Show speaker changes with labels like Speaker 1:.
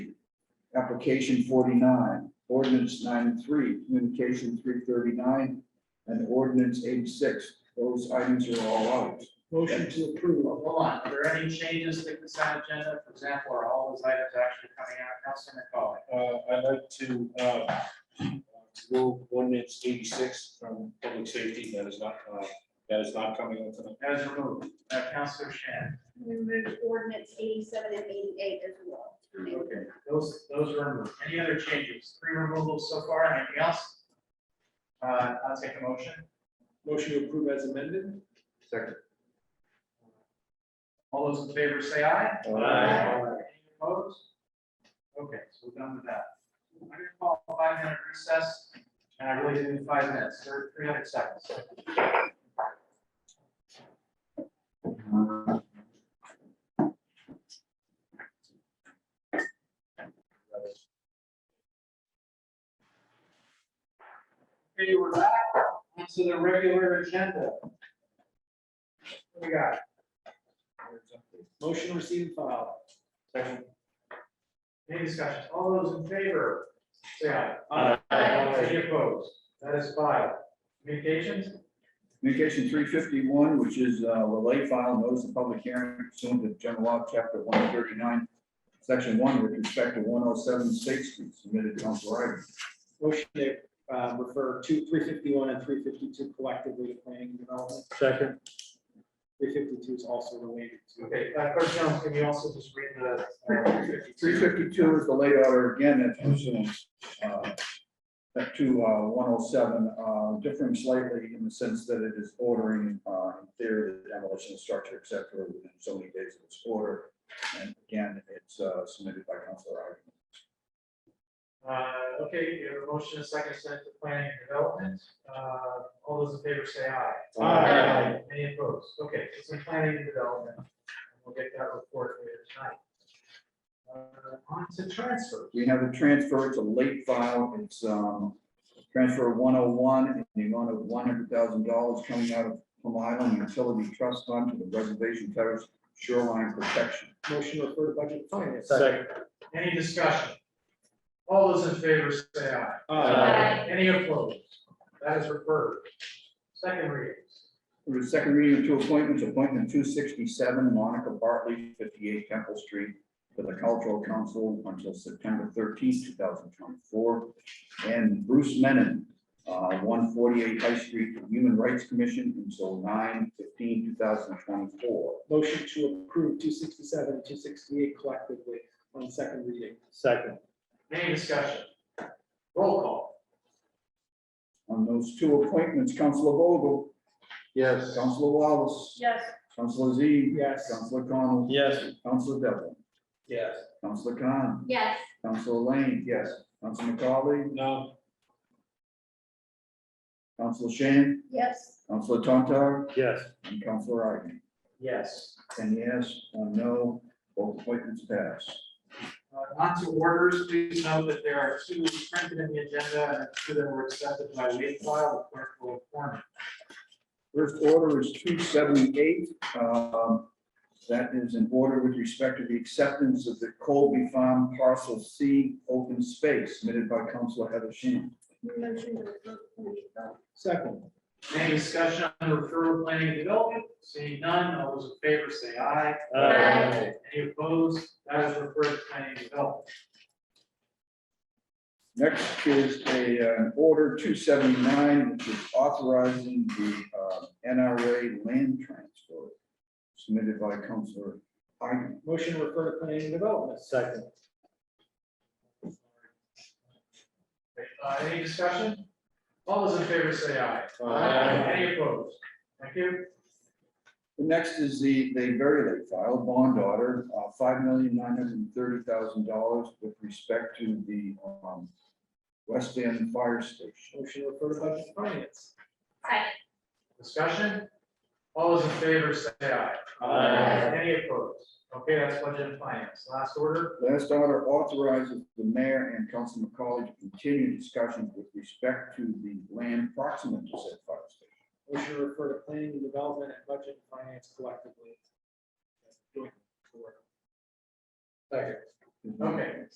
Speaker 1: application forty-nine, ordinance 93, communication three thirty-nine, and ordinance eighty-six. Those items are all out.
Speaker 2: Motion to approve.
Speaker 3: Well, Hold on, are there any changes to the consent agenda? For example, are all those items actually coming out? Councilman McCollum?
Speaker 4: Uh, I'd like to, uh, remove ordinance eighty-six from public safety, that is not, uh, that is not coming up tonight.
Speaker 3: That is removed. Uh, Councilor Shan?
Speaker 5: We removed ordinance eighty-seven and eighty-eight as well.
Speaker 3: Okay, those, those are removed. Any other changes? Three removals so far, anything else? Uh, I'll take a motion.
Speaker 2: Motion to approve as amended.
Speaker 1: Second.
Speaker 3: All those in favor say aye.
Speaker 1: Aye.
Speaker 3: Any opposed? Okay, so we're done with that. I'm gonna call a five minute recess, and I really do need five minutes, or three hundred seconds. Okay, we're back onto the regular agenda. What We got,
Speaker 2: Motion to receive and file.
Speaker 3: any discussions? All those in favor, say aye.
Speaker 2: Aye.
Speaker 3: Any opposed? That is five. Communications?
Speaker 1: Communication three fifty-one, which is a lay file, notice of public hearing pursuant to general law, chapter one thirty-nine, section one, with respect to one oh seven State Street, submitted council item.
Speaker 2: Motion to uh, refer to three fifty-one and three fifty-two collectively to planning and development.
Speaker 6: Second,
Speaker 2: Three fifty-two is also related to.
Speaker 3: Okay, uh, Clerk Jones, can you also just read the? uh,
Speaker 1: Three fifty-two is the lay order again, that's pursuant uh, to one oh seven, differing slightly in the sense that it is ordering, uh, in theory, the demolition of structure, et cetera, within so many days of its order. And again, it's uh, submitted by council item.
Speaker 3: Uh, okay, you have a motion, a second, sent to planning and development. Uh, all those in favor say aye.
Speaker 1: Aye.
Speaker 3: Any opposed? Okay, it's in planning and development. We'll get that report later tonight. Uh, on to transfer.
Speaker 1: We have a transfer, it's a late file, it's, um, transfer one oh one, in the amount of one hundred thousand dollars coming out of Plum Island Utility Trust Fund to the Reservation Terrace Shoreline Protection.
Speaker 2: Motion to refer to budget and finance.
Speaker 6: second,
Speaker 3: Any discussion? All those in favor say aye.
Speaker 5: Aye.
Speaker 3: Any opposed? That is referred. Second readings.
Speaker 1: For the second reading of two appointments, appointment two sixty-seven, Monica Bartley, fifty-eight Temple Street, to the Cultural Council until September thirteenth, two thousand twenty-four. And Bruce Menon, uh, one forty-eight High Street, to the Human Rights Commission until 9/15/2024.
Speaker 2: Motion to approve two sixty-seven, two sixty-eight collectively on second reading.
Speaker 6: second,
Speaker 3: Any discussion? Roll call.
Speaker 1: On those two appointments, Councilor Vogel. Yes. Councilor Wallace.
Speaker 5: Yes.
Speaker 1: Councilor Z.
Speaker 2: Yes.
Speaker 1: Councilor Connell.
Speaker 6: yes,
Speaker 1: Councilor Devlin.
Speaker 3: Yes.
Speaker 1: Councilor Khan.
Speaker 5: Yes.
Speaker 1: Councilor Lane. Yes. Council McCauley.
Speaker 4: No,
Speaker 1: Councilor Shan.
Speaker 5: Yes.
Speaker 1: Councilor Tontar.
Speaker 6: yes.
Speaker 1: And Councilor Iden.
Speaker 3: Yes.
Speaker 1: Ten yes, one no, both appointments pass.
Speaker 3: Uh, On to orders, please note that there are two printed in the agenda and two that were accepted by wave file, the clerk will inform. you.
Speaker 1: First order is two seventy-eight. Um, That is in order with respect to the acceptance of the Colby Farm Parcel C open space submitted by Councilor Heather Shan.
Speaker 5: Motion to approve planning and development.
Speaker 2: Second.
Speaker 3: Any discussion on the referral of planning and development? Seeing none, all those in favor say aye.
Speaker 6: Aye.
Speaker 3: Any opposed? That is referred to planning and development.
Speaker 1: Next is a, uh, an order two seventy-nine, which is authorizing the uh, NRA land transfer submitted by Counselor Hyden.
Speaker 2: Motion to refer to planning and development.
Speaker 6: Second,
Speaker 3: Uh, Any discussion? All those in favor say aye.
Speaker 6: Aye.
Speaker 3: Any opposed? Thank you.
Speaker 1: The next is the, the very late file, bond order, uh, five million nine hundred and thirty thousand dollars with respect to the um, West End Fire Station.
Speaker 2: Motion to refer to budget and finance.
Speaker 5: Second.
Speaker 3: Discussion? All those in favor say aye.
Speaker 6: Aye.
Speaker 3: Any opposed? Okay, that's budget and finance. Last order.
Speaker 1: Last order authorizes the mayor and Councilor McCauley to continue discussions with respect to the land proximate to said fire station.
Speaker 2: Motion to refer to planning and development and budget and finance collectively. Joint.
Speaker 3: Okay,